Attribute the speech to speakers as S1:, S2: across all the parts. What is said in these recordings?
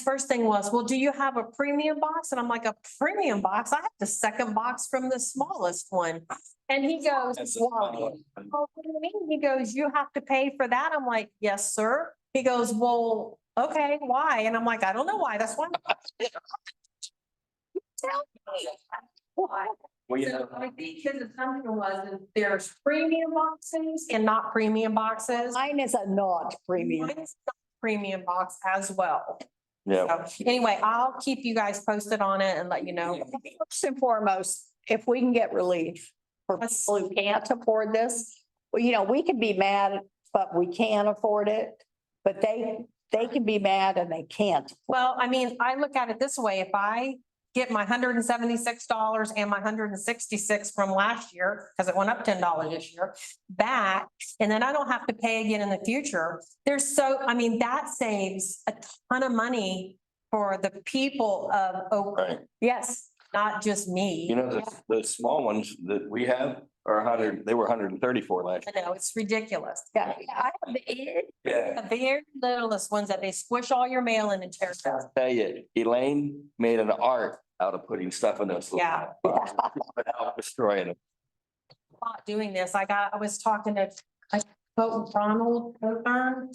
S1: first thing was, well, do you have a premium box? And I'm like, a premium box? I have the second box from the smallest one. And he goes,
S2: That's the
S1: well, oh, what do you mean? He goes, you have to pay for that? I'm like, yes, sir. He goes, well, okay, why? And I'm like, I don't know why. That's why. You Tell me why.
S2: We
S1: So
S2: have,
S1: I think his assumption was that there's premium boxes and not premium boxes.
S3: Mine is a not premium.
S1: Mine's not Premium box as well.
S2: yeah,
S1: So anyway, I'll keep you guys posted on it and let you know.
S3: First and foremost, if we can get relief for
S1: That's-
S3: people who can't afford this, well, you know, we can be mad, but we can afford it. But they, they can be mad and they can't.
S1: Well, I mean, I look at it this way, if I get my hundred and seventy-six dollars and my hundred and sixty-six from last year, because it went up ten dollars this year, back, and then I don't have to pay again in the future, there's so, I mean, that saves a ton of money for the people of Oakland,
S2: right.
S3: Yes,
S1: not just
S2: You
S1: me.
S2: know, the, the small ones that we have are hundred, they were hundred and thirty-four last.
S1: I know, it's ridiculous.
S3: yeah, yeah, I have the it.
S2: Yeah.
S1: The very littlest ones that they squish all your mail in and tear it up.
S2: Tell you, Elaine made an art out of putting stuff in those. little
S1: Yeah.
S2: boxes Without destroying them.
S1: thought doing this, I got, I was talking to, I spoke with Ronald Coburn,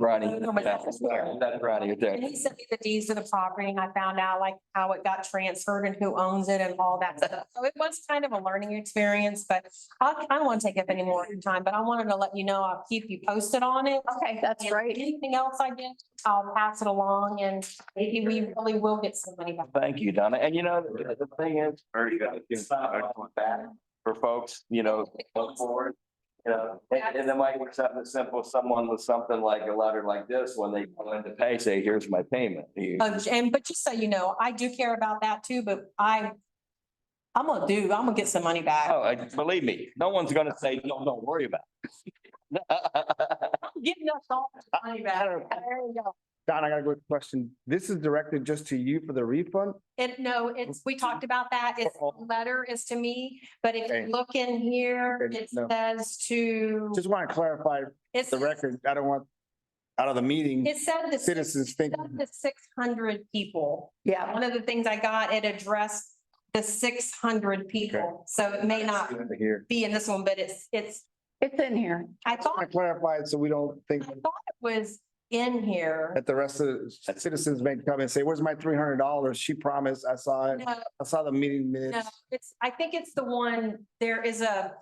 S2: Ronnie.
S1: Oh, no, but
S2: yeah,
S1: that's-
S2: That's Ronnie right there.
S1: and he sent me the deeds of the property, and I found out like how it got transferred and who owns it and all that stuff. So it was kind of a learning experience, but I, I don't want to take up any more of your time, but I wanted to let you know, I'll keep you posted on it.
S3: Okay, that's
S1: And
S3: right.
S1: Anything else I get, I'll pass it along, and maybe we really will get some money back.
S2: Thank you, Donna. And you know, the the thing is. Stop on that For folks, you know, look
S1: Uh,
S2: forward. You know, and, and it might be something simple, someone with something like a letter like this, when they go in to pay, say, here's my payment. You-
S1: Oh, And, but just so you know, I do care about that too, but I, I'm gonna do, I'm gonna get some money back.
S2: Oh, I- believe me, no one's gonna say, no, don't worry about it.
S1: giving us all the money back. There we go.
S4: Don, I got a good question. This is directed just to you for the refund?
S1: And no, it's, we talked about that. It's, the letter is to me, but if you
S4: Oh. Okay.
S1: look in here,
S4: Okay,
S1: it
S4: no.
S1: says to.
S4: Just want to clarify
S1: it's-
S4: the record. I don't want out of the meeting,
S1: It said the, it
S4: citizens
S1: said
S4: think,
S1: the six hundred people.
S3: Yeah,
S1: One of the things I got, it addressed the six hundred people. So it may not
S4: here.
S1: be in this one, but it's, it's,
S3: it's in here.
S1: I
S4: Just
S1: thought,
S4: want to clarify it so we don't
S1: I
S4: think
S1: thought it was in here.
S4: that the rest of the citizens may come and say, where's my three hundred dollars? She promised, I saw it.
S1: No,
S4: I saw the meeting
S1: No,
S4: minutes.
S1: it's, I think it's the one, there is a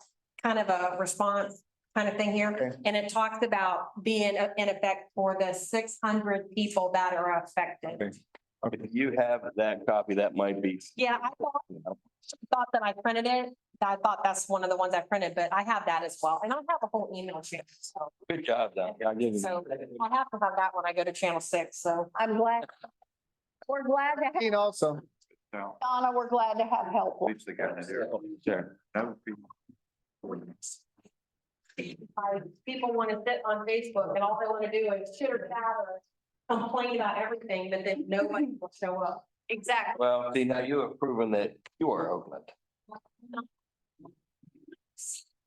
S1: kind of a response kind of thing here.
S4: Okay.
S1: And it talks about being uh, in effect for the six hundred people that are affected.
S4: Okay.
S2: If you have that copy, that might be.
S1: Yeah, I thought, thought that I printed it. I thought that's one of the ones I printed, but I have that as well. And I have a whole email chain. So
S2: Good job, Don. I give you-
S1: So- I have to have that when I go to channel six. So
S3: I'm glad. We're glad to have,
S4: And also,
S3: Donna, we're glad to have help.
S2: Oh, Sure.
S1: I- people want to sit on Facebook and all they want to do is chitter chatter, complain about everything, but then nobody will show up.
S3: Exactly.
S2: Well, see, now you have proven that you are Oakland.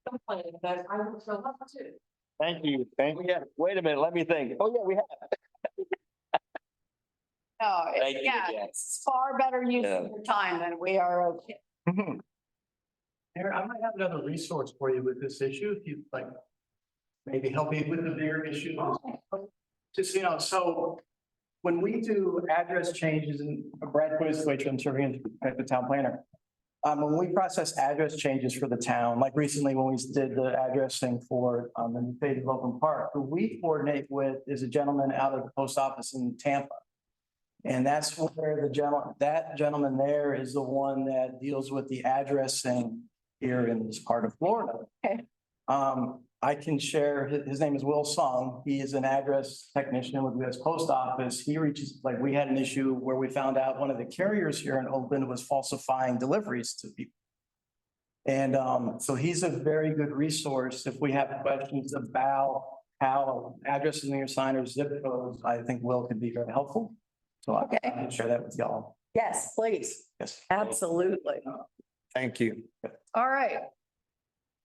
S1: complaining, but I would show up too.
S2: Thank you. Thank you. Oh, Wait a minute, let me think. Oh, yeah, we have.
S3: No, it-
S2: Thank you
S3: yeah,
S2: again.
S3: it's far better use of
S2: Yeah.
S3: your time than we are. okay.
S5: Mayor, I might have another resource for you with this issue, if you'd like. Maybe help you with the bigger issue. Just, you know, so when we do address changes and Brad put his way to, I'm serving as the town planner. Um, when we process address changes for the town, like recently when we did the address thing for, um, the new Fade of Oakland Park, who we coordinate with is a gentleman out of the post office in Tampa. And that's where the gentleman, that gentleman there is the one that deals with the address thing here in this part of Florida.
S3: Okay.
S5: Um, I can share, his, his name is Will Song. He is an address technician with US Post Office. He reaches, like, we had an issue where we found out one of the carriers here in Oakland was falsifying deliveries to people. And, um, so he's a very good resource if we have questions about how addresses in your sign or zip codes, I think Will could be very helpful. So I I
S3: Okay.
S5: can share that with y'all.
S3: Yes, please.
S5: Yes.
S3: Absolutely.
S4: thank you.
S3: All right.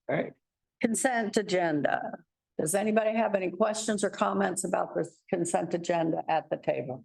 S2: All right.
S3: Consent agenda. Does anybody have any questions or comments about this consent agenda at the table?